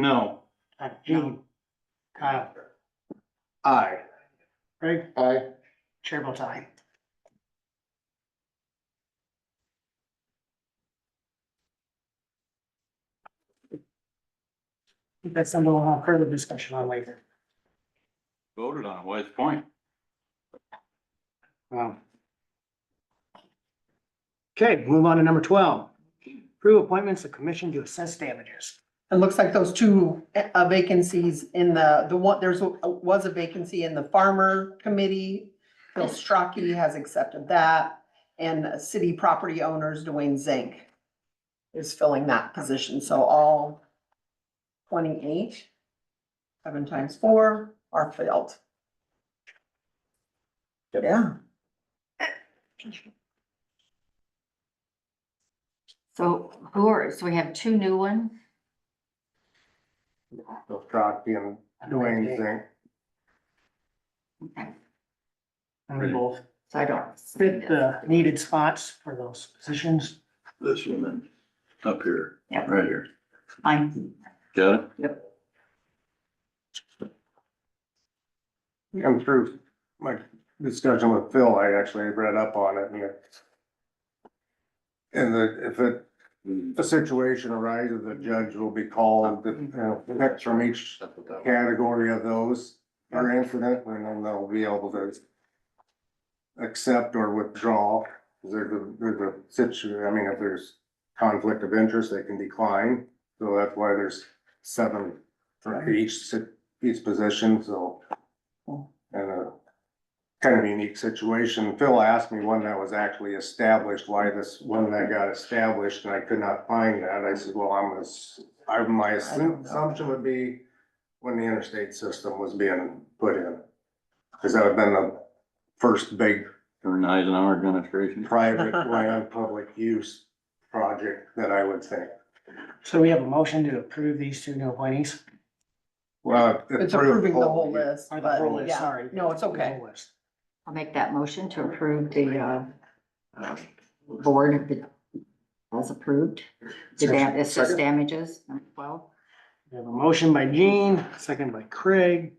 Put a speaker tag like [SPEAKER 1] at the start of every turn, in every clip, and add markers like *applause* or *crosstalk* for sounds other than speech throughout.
[SPEAKER 1] No.
[SPEAKER 2] Uh, Gene. Kyle.
[SPEAKER 1] Aye.
[SPEAKER 2] Craig.
[SPEAKER 1] Aye.
[SPEAKER 2] Chair votes aye. That's something we'll have further discussion on later.
[SPEAKER 1] Voted on, West Point.
[SPEAKER 2] Wow. Okay, move on to number twelve. Approve appointments of commission to assess damages.
[SPEAKER 3] It looks like those two uh, vacancies in the, the one, there's, a- was a vacancy in the farmer committee. Phil Strachey has accepted that, and city property owners, Dwayne Zink is filling that position, so all twenty-eight, seven times four are filled.
[SPEAKER 1] Yep.
[SPEAKER 3] Yeah,
[SPEAKER 4] So who are, so we have two new ones?
[SPEAKER 1] Bill Strachey and Dwayne Zink.
[SPEAKER 4] Okay,
[SPEAKER 2] And we both
[SPEAKER 4] So I don't.
[SPEAKER 2] fit the needed spots for those positions.
[SPEAKER 1] This one then, up here,
[SPEAKER 4] Yep.
[SPEAKER 1] right here.
[SPEAKER 4] Fine.
[SPEAKER 1] Got it?
[SPEAKER 5] And through my discussion with Phil, I actually read up on it and it. And the, if it, a situation arises, the judge will be called, you know, next from each category of those. Or incident, and then they'll be able to. Accept or withdraw, there's a, there's a situ, I mean, if there's conflict of interest, they can decline. So that's why there's seven for each, si- each position, so and uh, a kind of unique situation. Phil asked me when that was actually established, why this, when that got established, and I could not find that. I said, well, I'm, ass- I, my assume- assumption would be when the interstate system was being put in. Cause that would have been the first big
[SPEAKER 1] Or Eisenhower administration.
[SPEAKER 5] private land, public use project that I would think.
[SPEAKER 2] So we have a motion to approve these two new appointees.
[SPEAKER 5] Well.
[SPEAKER 3] it's approving the whole list,
[SPEAKER 2] Or the
[SPEAKER 3] but
[SPEAKER 2] whole list,
[SPEAKER 3] yeah,
[SPEAKER 2] sorry.
[SPEAKER 3] no, it's
[SPEAKER 2] The whole
[SPEAKER 3] okay.
[SPEAKER 2] list.
[SPEAKER 4] I'll make that motion to approve the, uh, uh, board of the, as approved. The dam, assess damages, *laughs* number twelve.
[SPEAKER 2] We have a motion by Gene, second by Craig.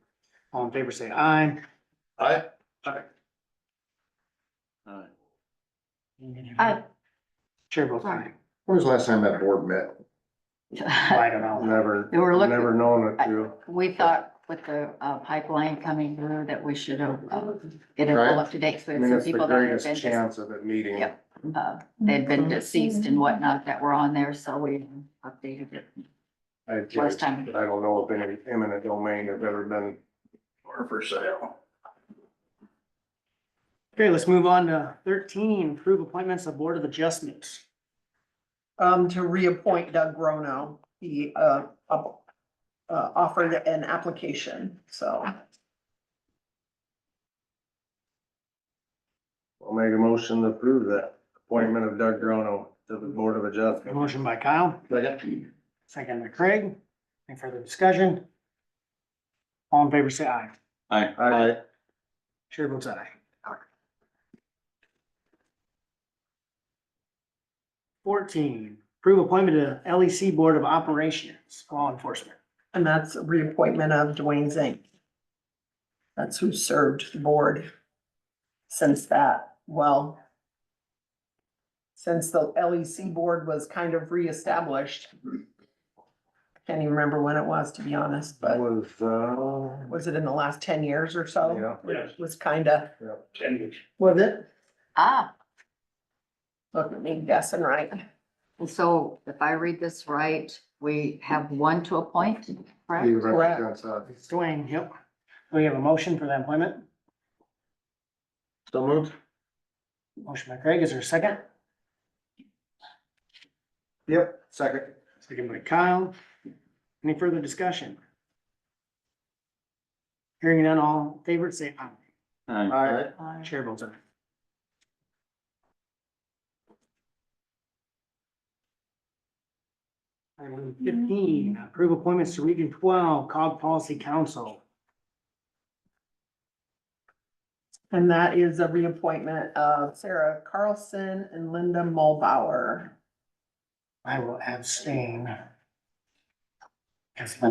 [SPEAKER 2] All in favor, say aye.
[SPEAKER 1] Aye. Aye. Aye.
[SPEAKER 4] Aye.
[SPEAKER 2] Chair votes aye.
[SPEAKER 5] When was the last time that board met?
[SPEAKER 2] Well, I don't know.
[SPEAKER 5] Never,
[SPEAKER 4] They were looking-
[SPEAKER 5] never known it to.
[SPEAKER 4] We thought with the uh, pipeline coming through that we should have, uh, get it all up to date. So
[SPEAKER 5] I
[SPEAKER 4] we had
[SPEAKER 5] mean,
[SPEAKER 4] some
[SPEAKER 5] it's the
[SPEAKER 4] people that had
[SPEAKER 5] greatest
[SPEAKER 4] been, dis-
[SPEAKER 5] chance of it meeting.
[SPEAKER 4] Yep. uh, they'd been deceased and whatnot that were on there, so we updated it.
[SPEAKER 5] I
[SPEAKER 4] Last
[SPEAKER 5] just, I
[SPEAKER 4] time.
[SPEAKER 5] don't know if any eminent domain have ever been.
[SPEAKER 1] Or for sale.
[SPEAKER 2] Okay, let's move on to thirteen, approve appointments of Board of Adjustments.
[SPEAKER 3] um, to reappoint Doug Grono. He, uh, up- uh, offered an application, so.
[SPEAKER 5] I'll make a motion to approve that appointment of Doug Grono to the Board of Adjustment.
[SPEAKER 2] Motion by Kyle,
[SPEAKER 1] Second.
[SPEAKER 2] second by Craig. Any further discussion? All in favor, say aye.
[SPEAKER 1] Aye.
[SPEAKER 5] I,
[SPEAKER 2] Chair votes aye. Fourteen, approve appointment to LEC Board of Operations, Law Enforcement.
[SPEAKER 3] And that's a reappointment of Dwayne Zink. That's who served the board since that, well, since the LEC board was kind of reestablished. Can't even remember when it was, to be honest, but
[SPEAKER 5] was, uh,
[SPEAKER 3] was it in the last ten years or so?
[SPEAKER 5] yeah,
[SPEAKER 1] Yes.
[SPEAKER 3] Was kinda,
[SPEAKER 1] Ten.
[SPEAKER 3] was it?
[SPEAKER 4] Ah,
[SPEAKER 3] Look at me guessing, right?
[SPEAKER 4] and so if I read this right, we have one to appoint,
[SPEAKER 5] he
[SPEAKER 4] correct?
[SPEAKER 5] represents us.
[SPEAKER 2] It's Dwayne, yep. Do we have a motion for that appointment?
[SPEAKER 5] So moved?
[SPEAKER 2] Motion by Craig, is there a second?
[SPEAKER 5] Yep, second.
[SPEAKER 2] Second by Kyle. Any further discussion? Hearing none, all in favor, say aye.
[SPEAKER 1] Aye.
[SPEAKER 5] Aye.
[SPEAKER 2] Chair votes aye. Item fifteen, approve appointments to Region twelve, Cog Policy Council.
[SPEAKER 3] And that is a reappointment of Sarah Carlson and Linda Mulbauer.
[SPEAKER 2] I will abstain. Because